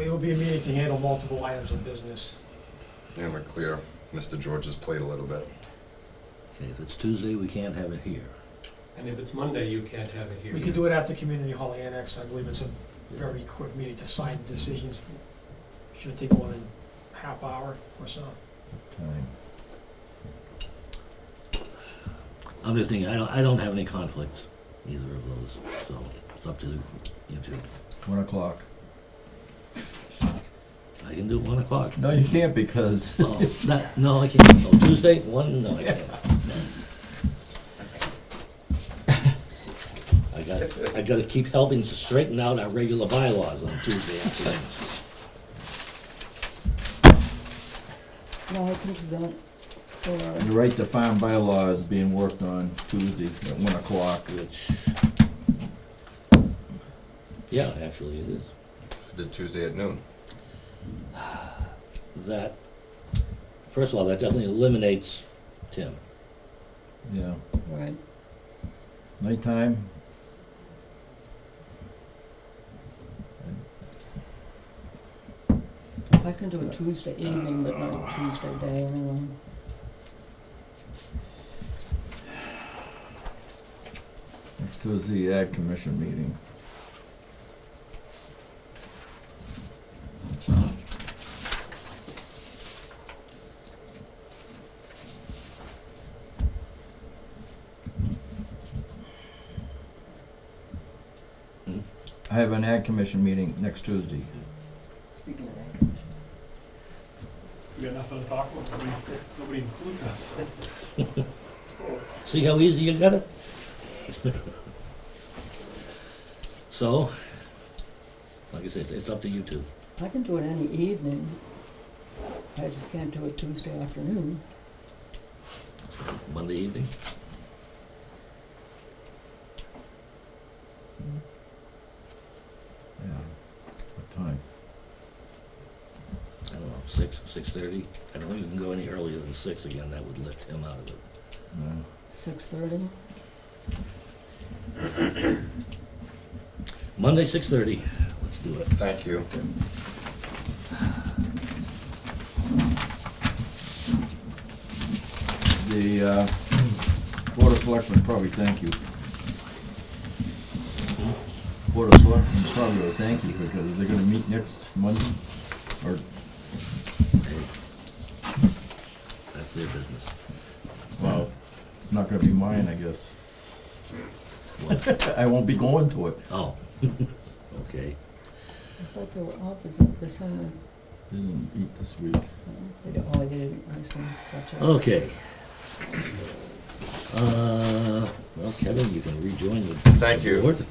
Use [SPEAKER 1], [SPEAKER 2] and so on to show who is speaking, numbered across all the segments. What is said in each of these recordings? [SPEAKER 1] it will be a meeting to handle multiple items of business.
[SPEAKER 2] And we're clear, Mr. George's played a little bit.
[SPEAKER 3] Okay, if it's Tuesday, we can't have it here.
[SPEAKER 4] And if it's Monday, you can't have it here.
[SPEAKER 1] We could do it after Community Hall Annex, I believe it's a very quick meeting to sign decisions. Shouldn't take more than half hour or so.
[SPEAKER 3] Other thing, I don't, I don't have any conflicts, either of those, so it's up to you two.
[SPEAKER 5] One o'clock.
[SPEAKER 3] I can do one o'clock.
[SPEAKER 5] No, you can't because
[SPEAKER 3] Oh, that, no, I can't, oh, Tuesday, one, no, I can't. I got, I gotta keep helping to straighten out our regular bylaws on Tuesday afternoons.
[SPEAKER 6] No, I can do that.
[SPEAKER 5] the right to farm bylaw is being worked on Tuesday at one o'clock.
[SPEAKER 3] Which, yeah, actually it is.
[SPEAKER 2] Did Tuesday at noon.
[SPEAKER 3] That, first of all, that definitely eliminates Tim.
[SPEAKER 5] Yeah,
[SPEAKER 6] Right.
[SPEAKER 5] nighttime.
[SPEAKER 6] I can do it Tuesday evening, but not Tuesday day anyway.
[SPEAKER 5] Next Tuesday, Ag Commission meeting.
[SPEAKER 3] Hmm?
[SPEAKER 5] I have an Ag Commission meeting next Tuesday.
[SPEAKER 7] We got nothing to talk about, nobody, nobody includes us.
[SPEAKER 3] See how easy you got it? So, like I said, it's up to you two.
[SPEAKER 6] I can do it any evening. I just can't do it Tuesday afternoon.
[SPEAKER 3] Monday evening.
[SPEAKER 5] Yeah. What time?
[SPEAKER 3] I don't know, six, six thirty. I don't think you can go any earlier than six again, that would lift him out of it.
[SPEAKER 5] Yeah.
[SPEAKER 6] Six thirty?
[SPEAKER 3] Monday, six thirty, let's do it.
[SPEAKER 2] Thank you.
[SPEAKER 5] The uh, Board of Selectmen probably thank you. Board of Selectmen probably will thank you because they're gonna meet next Monday or,
[SPEAKER 3] Hey, That's their business.
[SPEAKER 5] well, it's not gonna be mine, I guess.
[SPEAKER 3] What?
[SPEAKER 5] I won't be going to it.
[SPEAKER 3] Oh, okay.
[SPEAKER 6] I thought they were opposite this summer.
[SPEAKER 5] They didn't eat this week.
[SPEAKER 6] They don't, oh, they didn't, I see. Gotcha.
[SPEAKER 3] Okay. Uh, well, Kevin, you can rejoin the
[SPEAKER 2] Thank you.
[SPEAKER 3] board.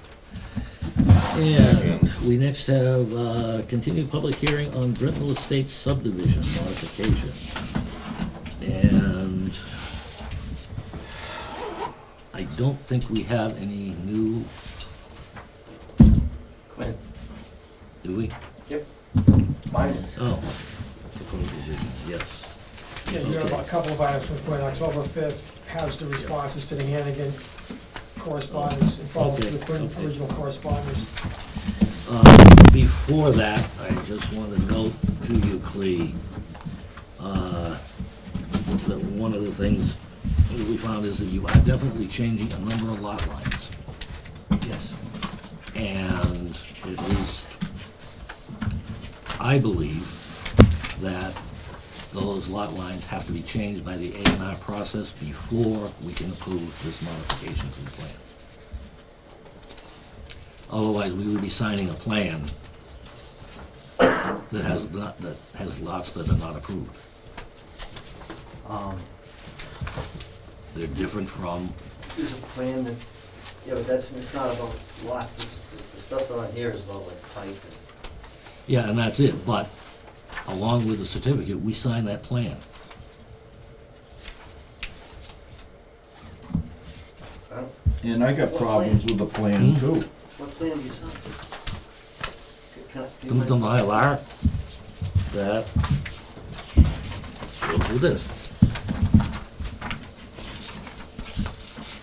[SPEAKER 3] And we next have, uh, continued public hearing on Brittenell Estates subdivision modification. And I don't think we have any new,
[SPEAKER 4] Quinn.
[SPEAKER 3] do we?
[SPEAKER 4] Yep. Mine is.
[SPEAKER 3] Oh, proposed revision, yes.
[SPEAKER 1] Yeah, you have a
[SPEAKER 3] Okay.
[SPEAKER 1] couple of items from Quinn, October fifth has the responses to the Hannigan correspondence, and follow
[SPEAKER 3] Okay,
[SPEAKER 1] the Quinn
[SPEAKER 3] okay.
[SPEAKER 1] original correspondence.
[SPEAKER 3] Uh, Before that, I just want to note to you, Clea, uh, that one of the things that we found is that you are definitely changing a number of lot lines.
[SPEAKER 1] Yes.
[SPEAKER 3] And at least, I believe that those lot lines have to be changed by the A and R process before we can approve this modification to the plan. Otherwise, we would be signing a plan that has not, that has lots that are not approved.
[SPEAKER 8] Um,
[SPEAKER 3] They're different from,
[SPEAKER 8] there's a plan that, you know, that's, it's not about lots, this, this- the stuff on here is about like pipe and,
[SPEAKER 3] yeah, and that's it, but along with the certificate, we sign that plan.
[SPEAKER 8] I don't,
[SPEAKER 5] And I got problems with the plan too.
[SPEAKER 8] what plan do you sign? Can I-
[SPEAKER 3] The
[SPEAKER 8] do you mind-
[SPEAKER 3] the Mylar, that, goes with this.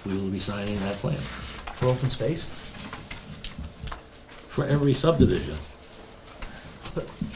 [SPEAKER 3] We will be signing that plan
[SPEAKER 8] For open space?
[SPEAKER 3] for every subdivision.